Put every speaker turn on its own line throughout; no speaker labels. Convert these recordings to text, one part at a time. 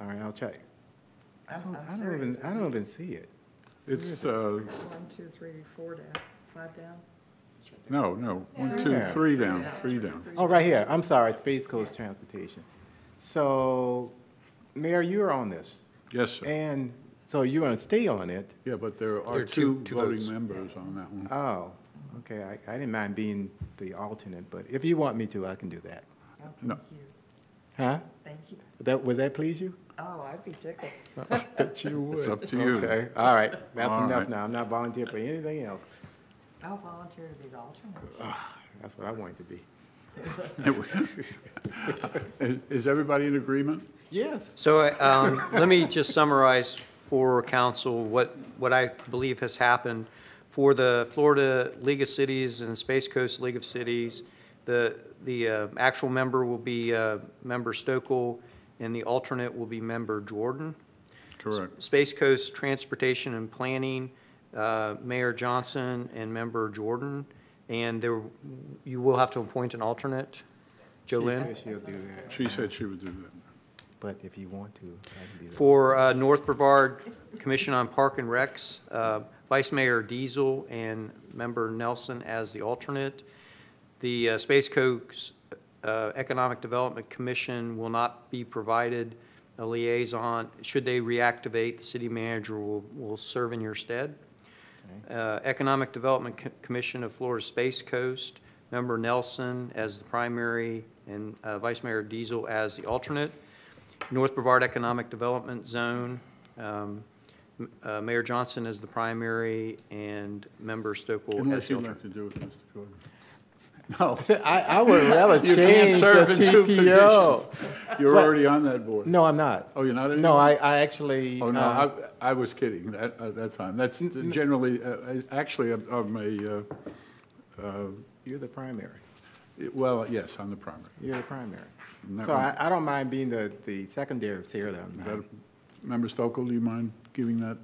All right, I'll check. Oh, I
I'm-
don't,
I'm
I don't
serious.
even, I don't even see it.
It's, uh,
One, two, three, four down, five down.
no, no, one, two,
Yeah.
three down, three down.
Oh, right here. I'm sorry, Space Coast Transportation. So, Mayor, you're on this.
Yes, sir.
And so you're going to stay on it?
Yeah, but there
There
are
are two-
two
two
voting
votes.
members on that one.
Oh, okay. I, I didn't mind being the alternate, but if you want me to, I can do that.
Oh,
No.
Thank you,
Huh?
thank you.
That, would that please you?
Oh, I'd be tickled.
That you would.
It's up to you.
Okay, all right. That's
All
enough
right.
now. I'm not volunteering for anything else.
I'll volunteer to be the alternate.
That's what I wanted to be.
Is- Is everybody in agreement?
Yes.
So um, let me just summarize for council what, what I believe has happened. For the Florida League of Cities and the Space Coast League of Cities, the, the uh, actual member will be uh, Member Stokel, and the alternate will be Member Jordan.
Correct.
Space Coast Transportation and Planning, uh, Mayor Johnson and Member Jordan. And there, you will have to appoint an alternate, Jolynn?
She said She'll do that,
She said she would do that.
but if you want to, I can do that.
For uh, North Brevard Commission on Park and Recs, uh, Vice Mayor Diesel and Member Nelson as the alternate. The uh, Space Coast uh, Economic Development Commission will not be provided a liaison. Should they reactivate, the city manager will, will serve in your stead. Uh, Economic Development Co- Commission of Florida Space Coast, Member Nelson as the primary and uh, Vice Mayor Diesel as the alternate. North Brevard Economic Development Zone, um, m- uh, Mayor Johnson is the primary and Member Stokel as
Unless
the
you'd like
alternate.
to do it, Mr. Jordan. No,
I said, I, I would rather
you can't
change
serve in
the
two
TPO.
positions. You're already on that board.
No, I'm not.
Oh, you're not anymore?
No, I, I actually,
Oh, no,
uh,
I, I was kidding at, at that time. That's generally, uh, I- actually, I'm- I'm a, uh,
you're the primary.
well, yes, I'm the primary.
You're the primary.
And that
So
was-
I, I don't mind being the, the secondary of Sarah. though, I'm not-
Member Stokel, do you mind giving that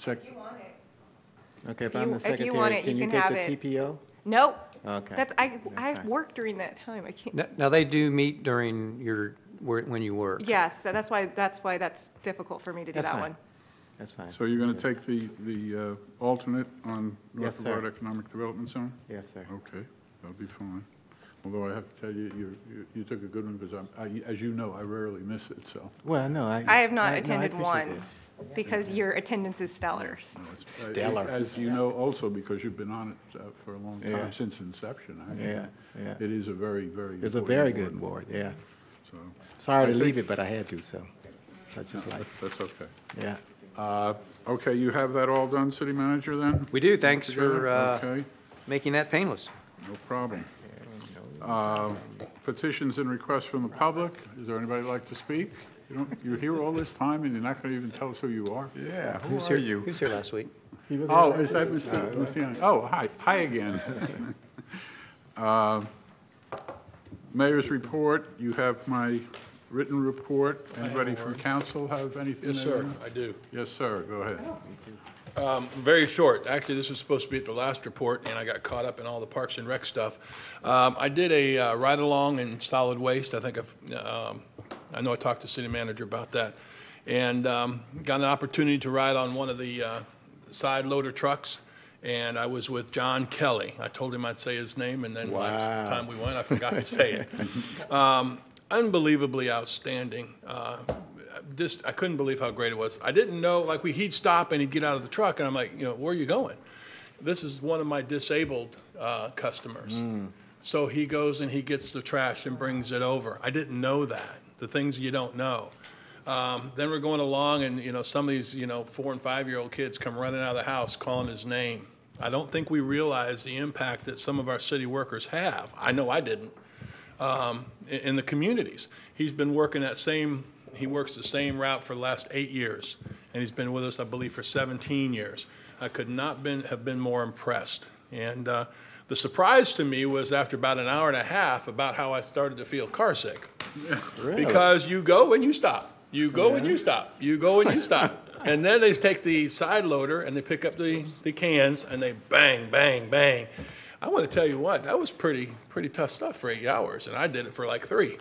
sec?
You want it.
Okay, if
If
I'm
you-
the
if you want
secretary,
it,
can
you
you
can
take the
have it.
TPO?
Nope.
Okay.
That's, I, I
fine.
work during that time. I can't.
Now- Now, they do meet during your, where- when you work.
Yes, so that's why, that's why that's difficult for me to do
That's
that
fine.
one.
That's fine.
So you're going to take the, the uh, alternate on
Yes,
North
sir.
Brevard Economic Development Zone?
Yes, sir.
Okay, that'll be fine. Although I have to tell you, you, you- you took a good one because I'm, I- as you know, I rarely miss it, so.
Well, no, I.
I have not
no, I
attended
appreciate
one
that.
because your attendance is stellar.
no, it's- uh,
Stellar.
As you know, also because you've been on it uh, for a long
Yeah.
time, since inception. I mean,
Yeah, yeah.
It is a very, very.
It's a
important
very good
board,
board, yeah.
So.
Sorry to
I think-
leave it, but I had to, so. That's just like,
That's okay.
yeah.
Uh, Okay, you have that all done, city manager, then?
We do, thanks for
Together?
uh,
Okay.
making that painless.
No problem. Uh, Petitions and requests from the public. Is there anybody that'd like to speak? You don't, you're here all this time and you're not going to even tell us who you are?
Yeah, who's here?
Who was here last week?
Oh, is that Mr. Mr. Young? Oh, hi, hi again. Uh, Mayor's report, you have my written report. Anybody from council have anything?
Yes,
they
sir,
want?
I do.
Yes, sir, go ahead.
Very short. Actually, this was supposed to be at the last report, and I got caught up in all the Parks and Rec stuff. Um, I did a uh, ride-along in solid waste. I think I've, um, I know I talked to city manager about that. And um, got an opportunity to ride on one of the uh, side loader trucks, and I was with John Kelly. I told him I'd say his name, and then last
Wow.
time we went, I forgot to say it. unbelievably outstanding. Uh, just I couldn't believe how great it was. I didn't know like we he'd stop and he'd get out of the truck and I'm like, you know, where are you going? This is one of my disabled uh, customers. So he goes and he gets the trash and brings it over. I didn't know that. The things you don't know. Um, then we're going along and you know some of these you know four and five year old kids come running out of the house calling his name. I don't think we realize the impact that some of our city workers have. I know I didn't um, i- in the communities. He's been working that same, he works the same route for the last eight years, and he's been with us, I believe, for 17 years. I could not been, have been more impressed. And uh, the surprise to me was after about an hour and a half about how I started to feel carsick. Because you go and you stop, you go and you stop, you go and you stop. And then they take the side loader and they pick up the, the cans and they bang, bang, bang. I want to tell you what, that was pretty, pretty tough stuff for eight hours, and I did it for like three.